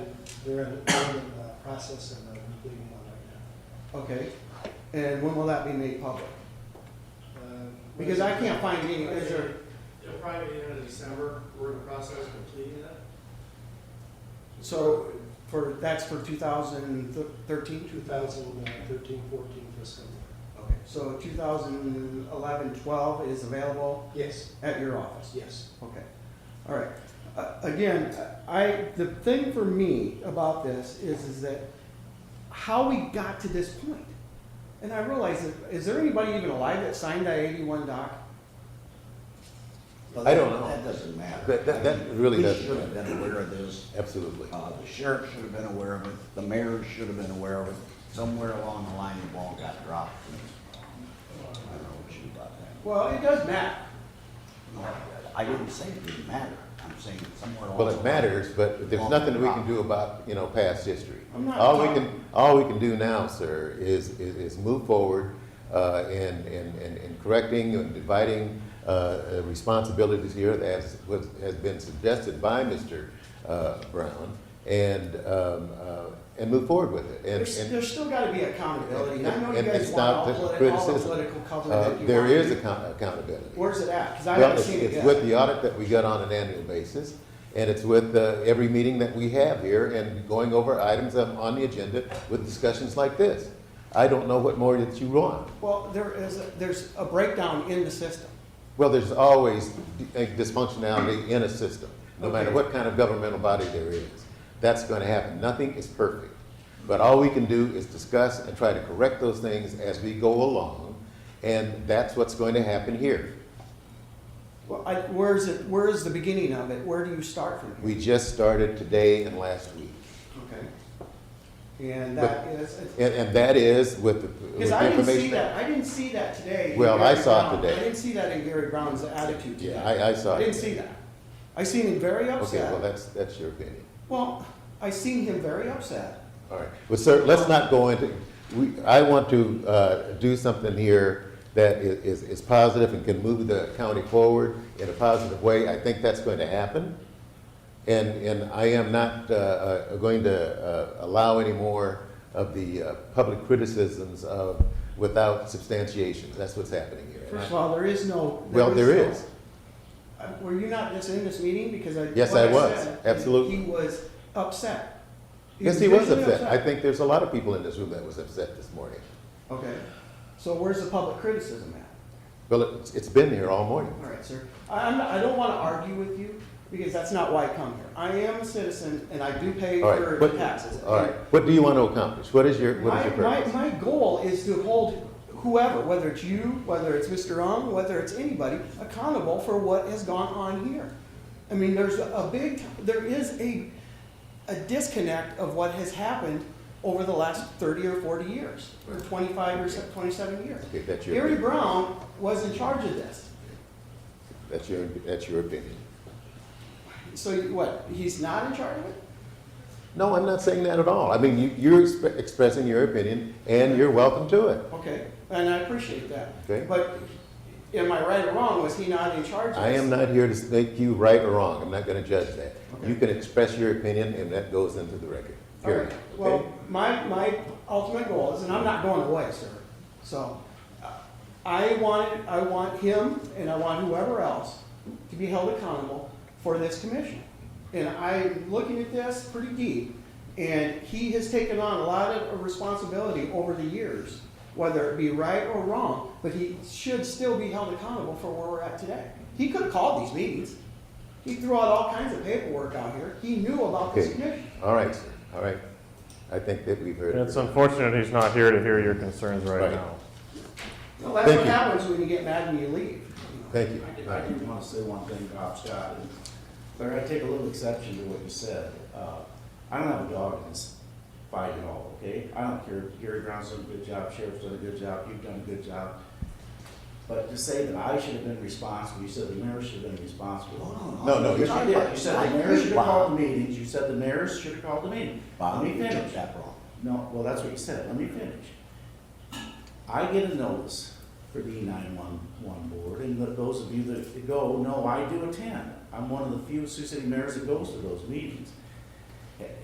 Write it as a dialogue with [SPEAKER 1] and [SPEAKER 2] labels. [SPEAKER 1] They're in, they're in the process of uh, completing one right
[SPEAKER 2] Okay, and when will that be made public?
[SPEAKER 1] now. Uh,
[SPEAKER 2] Because I can't find any, is there,
[SPEAKER 1] It'll probably be the end of December, we're in the process of completing that.
[SPEAKER 2] so for, that's for 2013?
[SPEAKER 1] 2013, 14 fiscal year.
[SPEAKER 2] Okay, so 2011, 12 is available
[SPEAKER 1] Yes,
[SPEAKER 2] at your office?
[SPEAKER 1] yes.
[SPEAKER 2] Okay, all right. Uh, Again, I, the thing for me about this is, is that how we got to this point. And I realize, that- is there anybody even alive that signed that 81 doc?
[SPEAKER 3] I don't know.
[SPEAKER 4] That doesn't matter.
[SPEAKER 3] That- that- that
[SPEAKER 4] I mean,
[SPEAKER 3] really doesn't
[SPEAKER 4] We should have been aware of this.
[SPEAKER 3] Absolutely.
[SPEAKER 4] Uh, the sheriff should have been aware of it. The mayor should have been aware of it. Somewhere along the line, the ball got dropped. I don't know what you thought that.
[SPEAKER 2] Well, it does matter.
[SPEAKER 4] No, I didn't say it didn't matter. I'm saying somewhere along.
[SPEAKER 3] Well,
[SPEAKER 4] the
[SPEAKER 3] it
[SPEAKER 4] line-
[SPEAKER 3] matters, but there's nothing we can do about, you know, past history.
[SPEAKER 2] I'm not
[SPEAKER 3] All we
[SPEAKER 2] talking-
[SPEAKER 3] can, all we can do now, sir, is, is, is move forward, uh, in, in, in, in correcting and dividing, uh, uh, responsibilities here as was, has been suggested by Mr. Uh, Brown and, um, uh, and move forward with it. And-
[SPEAKER 2] There's,
[SPEAKER 3] and-
[SPEAKER 2] there's still gotta be accountability, and I know you
[SPEAKER 3] And- and
[SPEAKER 2] guys
[SPEAKER 3] it's
[SPEAKER 2] want all
[SPEAKER 3] not the
[SPEAKER 2] politi- all the
[SPEAKER 3] criticism.
[SPEAKER 2] political cover
[SPEAKER 3] uh,
[SPEAKER 2] that you
[SPEAKER 3] there
[SPEAKER 2] want.
[SPEAKER 3] is account- accountability.
[SPEAKER 2] Where's it at? Cause I
[SPEAKER 3] Well,
[SPEAKER 2] haven't
[SPEAKER 3] it's,
[SPEAKER 2] seen it
[SPEAKER 3] it's
[SPEAKER 2] yet.
[SPEAKER 3] with the audit that we get on an annual basis, and it's with uh, every meeting that we have here and going over items that are on the agenda with discussions like this. I don't know what more that you want.
[SPEAKER 2] Well, there is, a- there's a breakdown in the system.
[SPEAKER 3] Well, there's always a dysfunctionality in a system, no matter
[SPEAKER 2] Okay.
[SPEAKER 3] what kind of governmental body there is. That's going to happen. Nothing is perfect. But all we can do is discuss and try to correct those things as we go along, and that's what's going to happen here.
[SPEAKER 2] Well, I, where's it, where is the beginning of it? Where do you start from here?
[SPEAKER 3] We just started today and last week.
[SPEAKER 2] Okay. And that is,
[SPEAKER 3] And, and that is with the.
[SPEAKER 2] cause
[SPEAKER 3] with the
[SPEAKER 2] I didn't see
[SPEAKER 3] information
[SPEAKER 2] that, I didn't see that today. in
[SPEAKER 3] Well, I
[SPEAKER 2] Gary
[SPEAKER 3] saw it
[SPEAKER 2] Brown.
[SPEAKER 3] today.
[SPEAKER 2] I didn't see that in Gary Brown's attitude today.
[SPEAKER 3] Yeah, I, I saw.
[SPEAKER 2] I didn't
[SPEAKER 3] it.
[SPEAKER 2] see that. I seen him very
[SPEAKER 3] Okay, well,
[SPEAKER 2] upset.
[SPEAKER 3] that's, that's your opinion.
[SPEAKER 2] Well, I seen him very upset.
[SPEAKER 3] All right. Well, sir, let's not go into, we, I want to, uh, do something here that i- is, is positive and can move the county forward in a positive way. I think that's going to happen. And, and I am not, uh, uh, going to, uh, allow any more of the, uh, public criticisms of, without substantiation. That's what's happening here. And I-
[SPEAKER 2] First of all, there is no.
[SPEAKER 3] Well, there
[SPEAKER 2] no-
[SPEAKER 3] is.
[SPEAKER 2] Uh, Were you not just in this meeting? Because I.
[SPEAKER 3] Yes,
[SPEAKER 2] what
[SPEAKER 3] I was.
[SPEAKER 2] said,
[SPEAKER 3] Absolutely.
[SPEAKER 2] He was upset.
[SPEAKER 3] Yes, he was
[SPEAKER 2] visibly
[SPEAKER 3] upset. I think there's a lot of people in this room that was upset this morning.
[SPEAKER 2] Okay, so where's the public criticism at?
[SPEAKER 3] Well, it's, it's been here all morning.
[SPEAKER 2] All right, sir. I, I'm, not- I don't want to argue with you because that's not why I come here. I am a citizen and I do pay
[SPEAKER 3] All right,
[SPEAKER 2] for
[SPEAKER 3] what-
[SPEAKER 2] taxes.
[SPEAKER 3] All right, what do you want to accomplish? What is your, what is
[SPEAKER 2] My,
[SPEAKER 3] your
[SPEAKER 2] my,
[SPEAKER 3] purpose?
[SPEAKER 2] my goal is to hold whoever, whether it's you, whether it's Mr. Ong, whether it's anybody, accountable for what has gone on here. I mean, there's a big, there is a, a disconnect of what has happened over the last thirty or forty years, or twenty-five or se- twenty-seven years.
[SPEAKER 3] Okay, that's your,
[SPEAKER 2] Gary
[SPEAKER 3] opinion.
[SPEAKER 2] Brown was in charge of this.
[SPEAKER 3] that's your, that's your opinion.
[SPEAKER 2] So you- what, he's not in charge of it?
[SPEAKER 3] No, I'm not saying that at all. I mean, you, you're exp- expressing your opinion and you're welcome to it.
[SPEAKER 2] Okay, and I appreciate that.
[SPEAKER 3] Okay.
[SPEAKER 2] But am I right or wrong? Was he not in charge of this?
[SPEAKER 3] I am not here to make you right or wrong. I'm not going to judge that. You can express your opinion and that goes into the record.
[SPEAKER 2] All
[SPEAKER 3] Period.
[SPEAKER 2] right,
[SPEAKER 3] Okay?
[SPEAKER 2] well, my, my ultimate goal is, and I'm not going away, sir, so, uh, I want, I want him and I want whoever else to be held accountable for this commission. And I'm looking at this pretty deep, and he has taken on a lot of responsibility over the years, whether it be right or wrong, but he should still be held accountable for where we're at today. He could have called these meetings, he threw out all kinds of paperwork out here, he knew about this
[SPEAKER 3] Okay.
[SPEAKER 2] commission.
[SPEAKER 3] All right, sir. all right. I think that we've heard.
[SPEAKER 5] It's unfortunate he's not here to hear your concerns
[SPEAKER 3] Right.
[SPEAKER 5] right now.
[SPEAKER 2] Well, that's
[SPEAKER 3] Thank
[SPEAKER 2] what
[SPEAKER 3] you.
[SPEAKER 2] happens when you get mad and you leave.
[SPEAKER 3] Thank you.
[SPEAKER 6] I did-
[SPEAKER 3] All
[SPEAKER 6] I
[SPEAKER 3] right.
[SPEAKER 6] do want to say one thing, Bob Scott, and Larry, I take a little exception to what you said. Uh, I don't have a dog in this fight at all, okay? I don't care, Gary Brown's done a good job, Sheriff's done a good job, you've done a good job. But to say that I should have been responsible, you said the mayor should have been responsible.
[SPEAKER 3] No, no,
[SPEAKER 6] You
[SPEAKER 3] you're-
[SPEAKER 6] did, you said the mayor should have
[SPEAKER 4] Bob,
[SPEAKER 6] called the meetings, you said the mayor should have called the meeting. Let
[SPEAKER 4] Bob,
[SPEAKER 6] me
[SPEAKER 4] you
[SPEAKER 6] finish.
[SPEAKER 4] took that wrong.
[SPEAKER 6] No, well, that's what you said, let me finish. I get a notice for the E nine-one-one board, and th- those of you that go, no, I do attend. I'm one of the few Sioux City mayors that goes to those meetings. A-